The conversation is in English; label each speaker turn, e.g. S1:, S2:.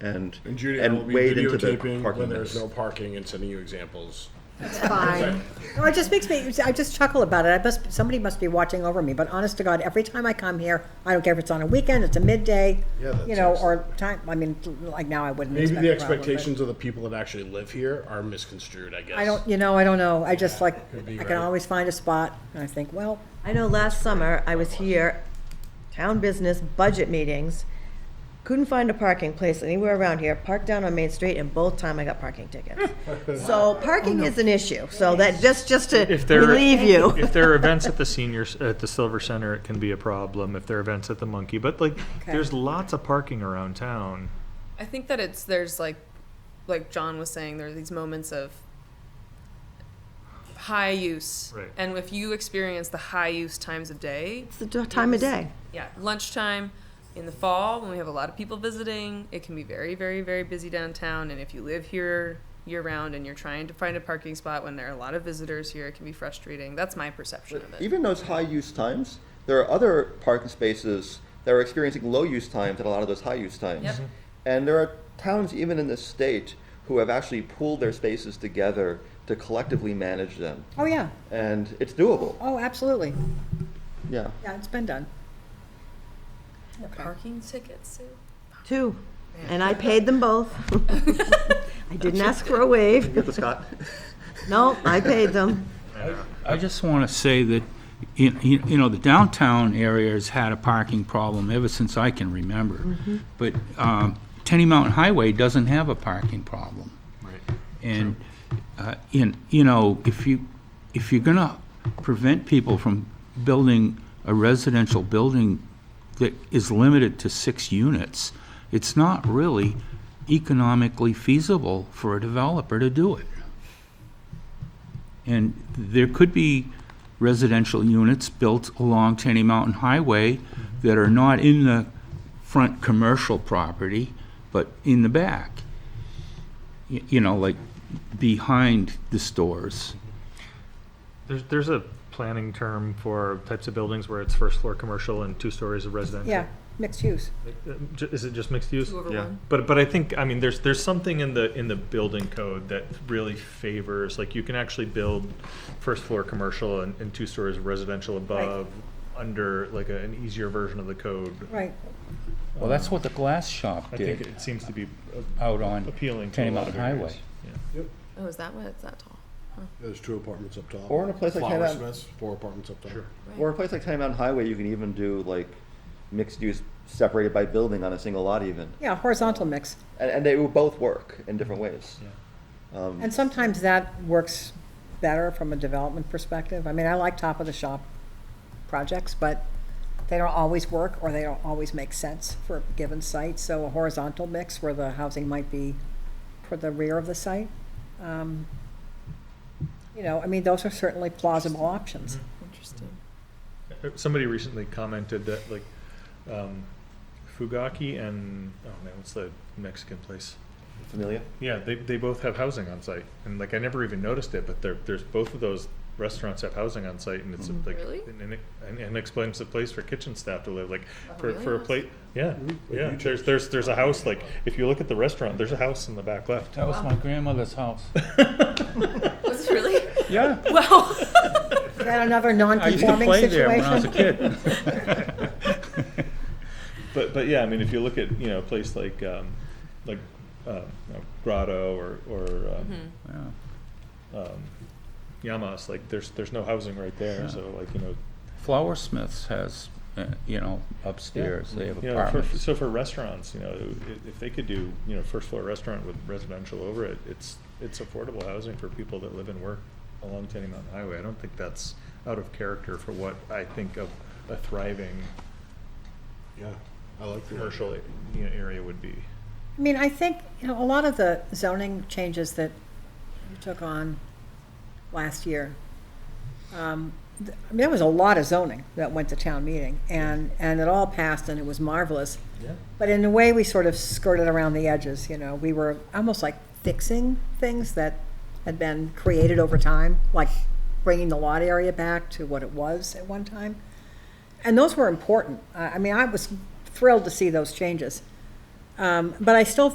S1: and
S2: And Judy, I will
S1: and
S2: be
S1: wade into the
S2: videotaping
S1: parking
S2: when there's
S1: minutes.
S2: no parking and sending you examples.
S3: It's fine. No, it just makes me, I just chuckle about it. I must, somebody must be watching over me, but honest to God, every time I come here, I don't care if it's on a weekend, it's a midday,
S2: Yeah, that's
S3: you know, or time, I mean, like now I wouldn't
S2: Maybe
S3: expect.
S2: the
S3: a problem, but
S2: expectations of the people that actually live here are misconstrued, I guess.
S3: I don't, you know, I don't know. I just like,
S2: Could be
S3: I can
S2: right.
S3: always find a spot and I think, well,
S4: I know last summer, I was here, town business, budget meetings, couldn't find a parking place anywhere around here, parked down on Main Street, and both time I got parking tickets. So parking is an issue, so that, just, just to
S5: If there-
S4: relieve you.
S5: If there are events at the seniors, at the Silver Center, it can be a problem. If there are events at the Monkey, but like, there's lots of parking around town.
S6: I think that it's there's like like John was saying there are these moments of high use
S5: Right.
S6: and if you experience the high use times of day
S4: It's the d- time of day.
S6: yeah lunchtime in the fall when we have a lot of people visiting it can be very very very busy downtown and if you live here year round and you're trying to find a parking spot when there are a lot of visitors here it can be frustrating that's my perception of it
S1: Even those high use times, there are other parking spaces that are experiencing low use times at a lot of those high use times.
S6: Yep. Mhm.
S1: And there are towns, even in this state, who have actually pooled their spaces together to collectively manage them.
S3: oh yeah,
S1: And it's doable.
S3: oh, absolutely.
S1: Yeah.
S3: Yeah, it's been done.
S6: parking tickets Sue?
S4: Two. And I paid them both. I didn't ask for a waive.
S1: Get the Scott.
S4: No, I paid them.
S7: I just want to say that, you you- you know, the downtown area has had a parking problem ever since I can remember. But um, Tenny Mountain Highway doesn't have a parking problem. And, uh, in- you know, if you, if you're going to prevent people from building a residential building that is limited to six units, it's not really economically feasible for a developer to do it. And there could be residential units built along Tenny Mountain Highway that are not in the front commercial property, but in the back. Y- You know, like behind the stores.
S5: There's, there's a planning term for types of buildings where it's first floor commercial and two stories of residential.
S3: Yeah, mixed use.
S5: Uh, ju- Is it just mixed use?
S6: Two over
S1: Yeah.
S6: one.
S5: But, but I think, I mean, there's, there's something in the, in the building code that really favors, like, you can actually build first floor commercial and, and two stories residential above, under like a- an easier version of the code.
S3: Right.
S7: Well, that's what the glass shop
S5: I think
S7: did
S5: it seems to be uh,
S7: out on
S5: appealing to a
S7: Tenny
S5: lot of
S7: Mountain Highway.
S5: areas.
S6: oh is that what it's that tall
S2: There's two apartments up top.
S1: Or in a place like Hanover-
S2: Flowersmiths, four apartments up top.
S5: Sure.
S1: Or a place like Time Mountain Highway, you can even do like mixed use separated by building on a single lot even.
S3: Yeah, horizontal mix.
S1: And, and they will both work in different ways.
S3: And sometimes that works better from a development perspective. I mean, I like top of the shop projects, but they don't always work or they don't always make sense for a given site. So a horizontal mix where the housing might be toward the rear of the site. um, You know, I mean, those are certainly plausible options.
S7: Mm-hmm.
S6: interesting
S5: Uh, Somebody recently commented that like, um, Fugaki and, oh man, what's the Mexican place?
S1: Familiar?
S5: Yeah, they, they both have housing on site, and like I never even noticed it, but there, there's both of those restaurants have housing on site, and it's like
S6: Really?
S5: an, an, an an expensive place for kitchen staff to live, like for,
S6: Oh, really?
S5: for a plate. Yeah, yeah. There's there's there's a house like if you look at the restaurant, there's a house in the back left.
S7: That was my grandmother's house.
S6: was it really
S7: Yeah.
S6: well
S3: Is that another
S7: I used to
S3: non-conforming
S7: play there when I was a
S3: situation?
S7: kid.
S5: But but yeah, I mean if you look at you know a place like um, like uh, you know, Grotto or or um,
S6: Mm-hmm.
S7: Yeah.
S5: um, Yamas, like there's there's no housing right there,
S7: Yeah.
S5: so like you know
S7: Flowersmiths has, uh, you know, upstairs, they have
S5: You know, for,
S7: apartments.
S5: so for restaurants, you know, i- if they could do, you know, first floor restaurant with residential over it, it's, it's affordable housing for people that live and work along Tenny Mountain Highway. I don't think that's out of character for what I think of a thriving
S2: Yeah, I like the
S5: commercial, you know, area would be.
S3: I mean, I think, you know, a lot of the zoning changes that you took on last year, um, th- I mean, there was a lot of zoning that went to town meeting, and, and it all passed, and it was marvelous.
S5: Yeah.
S3: But in a way, we sort of skirted around the edges, you know, we were almost like fixing things that had been created over time, like bringing the lot area back to what it was at one time. And those were important. I, I mean, I was thrilled to see those changes. Um, but I still